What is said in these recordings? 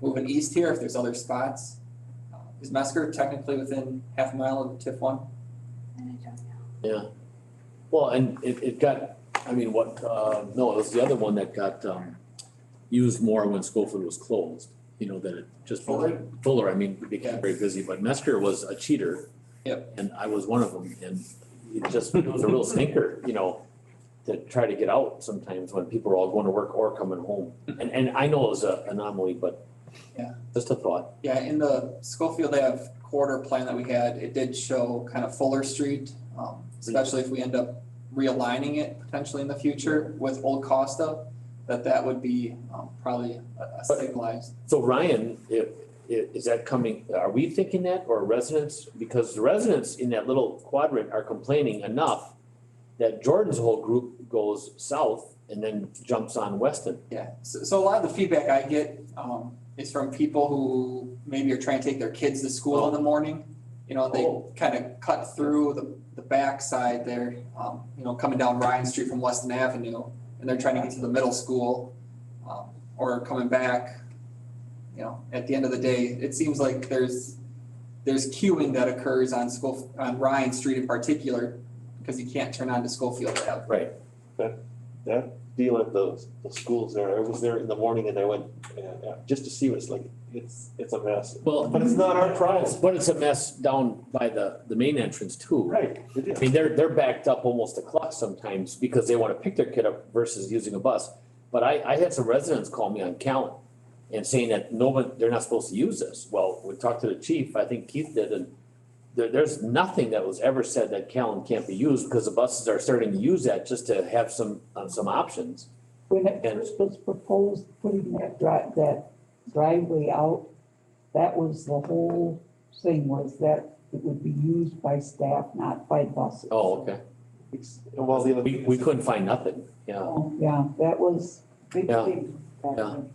moving east here if there's other spots. Uh, Is Mesker technically within half a mile of TIF one? And I don't know. Well, and it, it got, I mean, what, uh, no, it was the other one that got, um, used more when Schofield was closed, you know, that it just. Fuller? Fuller, I mean, it became very busy, but Mesker was a cheater. Yep. And I was one of them, and it just, it was a real stinker, you know, to try to get out sometimes when people are all going to work or coming home. And, and I know it was a anomaly, but Hmm. Yeah. just a thought. Yeah, in the Schofield Ave corridor plan that we had, it did show kind of Fuller Street, um, especially if we end up realigning it potentially in the future with Old Costa, that that would be, um, probably a a stabilized. So Ryan, if, i- is that coming, are we thinking that or residents? Because the residents in that little quadrant are complaining enough that Jordan's whole group goes south and then jumps on Weston. Yeah, so, so a lot of the feedback I get, um, is from people who maybe are trying to take their kids to school in the morning. You know, they Oh. kind of cut through the, the backside there, um, you know, coming down Ryan Street from Weston Avenue, and they're trying to get to the middle school, um, or coming back. You know, at the end of the day, it seems like there's, there's queuing that occurs on school, on Ryan Street in particular, because you can't turn onto Schofield Ave. deal at the, the schools there, I was there in the morning and I went, uh, uh, just to see what it's like, it's, it's a mess. Well. But it's not our problem. But it's a mess down by the, the main entrance too. Right, it I is. mean, they're, they're backed up almost a clock sometimes because they wanna pick their kid up versus using a bus. But I, I had some residents call me on Callan and saying that no one, they're not supposed to use this. Well, we talked to the chief, I think Keith did, and there, there's nothing that was ever said that Callan can't be used because the buses are starting to use that just to have some, uh, some options. When it first was proposed, putting that drive, that driveway out, that was the whole thing was that it would be used by staff, not by buses. Oh, okay. It's- and Well, the other. We, thing we is- couldn't find nothing, yeah. Yeah, that was big Yeah, thing. back yeah. then.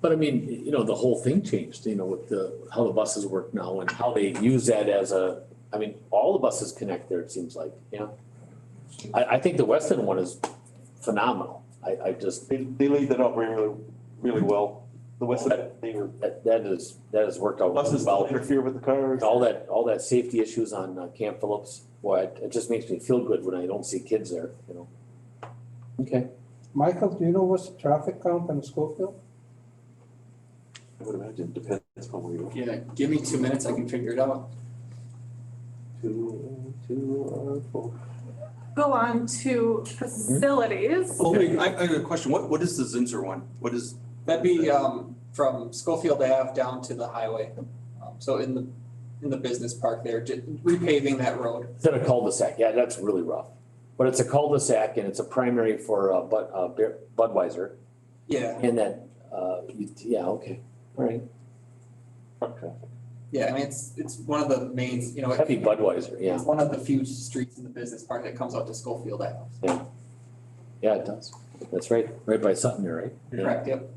But I mean, you know, the whole thing changed, you know, with the, how the buses work now and how they use that as a, I mean, all the buses connect there, it seems like, yeah. I, I think the Weston one is phenomenal. I, I just, They, they laid that out really, really well, the west side, they were, that, that is, that has worked out really buses don't well. interfere with the cars. All that, all that safety issues on uh, Camp Phillips, boy, it, it just makes me feel good when I don't see kids there, you know? Okay, Michael, do you know what's the traffic count in Schofield? I would imagine, depends on where you go. Yeah, give me two minutes, I can figure it out. Two, two, uh, four. go on to facilities. Well, Oh, wait, I, I got a question. What, what is the Zinser one? What is, That'd be um from Schofield Ave down to the highway. Um, So in the, in the business park there, ju- repaving that road. instead of cul-de-sac, yeah, that's really rough. But it's a cul-de-sac and it's a primary for, uh, Bud, uh, Bear- Budweiser. Yeah, And that, uh, you- yeah, okay, all right, Truck traffic. yeah, I mean, it's, it's one of the main, you know, heavy it- Budweiser, yeah, it's one of the few streets in the business park that comes out to Schofield Ave. yeah, it does, that's right, right by Sutton, you're right. Yeah. Correct, yep.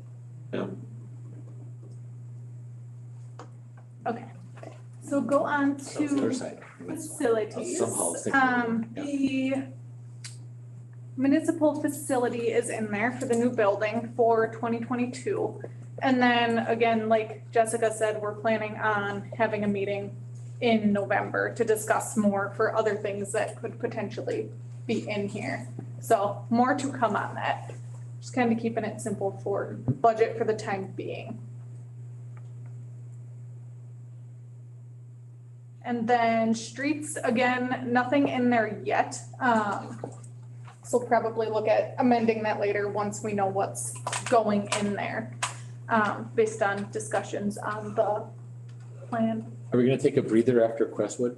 So go That on was the other to side. facilities. Somehow it's thinking, Um, the municipal facility is in there for the new building for twenty twenty-two. And then again, like Jessica said, we're planning on having a meeting in November to discuss more for other things that could potentially be in here. So more to come on that. Just kind of keeping it simple for budget for the time being. And then streets, again, nothing in there yet. Um, so probably look at amending that later once we know what's going in there, um, based on discussions on the plan. Are we gonna take a breather after Crestwood?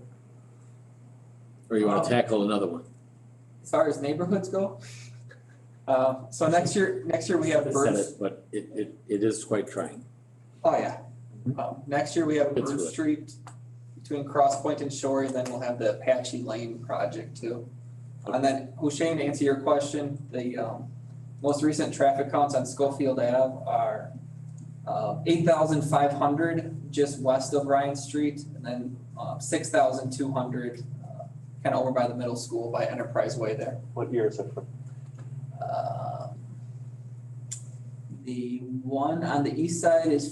Or you Oh. wanna Um, tackle another one? As far as neighborhoods go, uh, so next year, next year we have Said Burns. it, But it, it, it is quite trying, Oh, yeah. Um, next year we have It's Bird really- Street between Cross Point and Shore, and then we'll have the Apache Lane project too. And then, Hushain, to answer your question, the, um, most recent traffic counts on Schofield Ave are, uh, eight thousand five hundred just west of Ryan Street, and then, uh, six thousand two hundred, uh, kind of over by the middle school by Enterprise Way there. What year is it from? Uh, The one on the east side is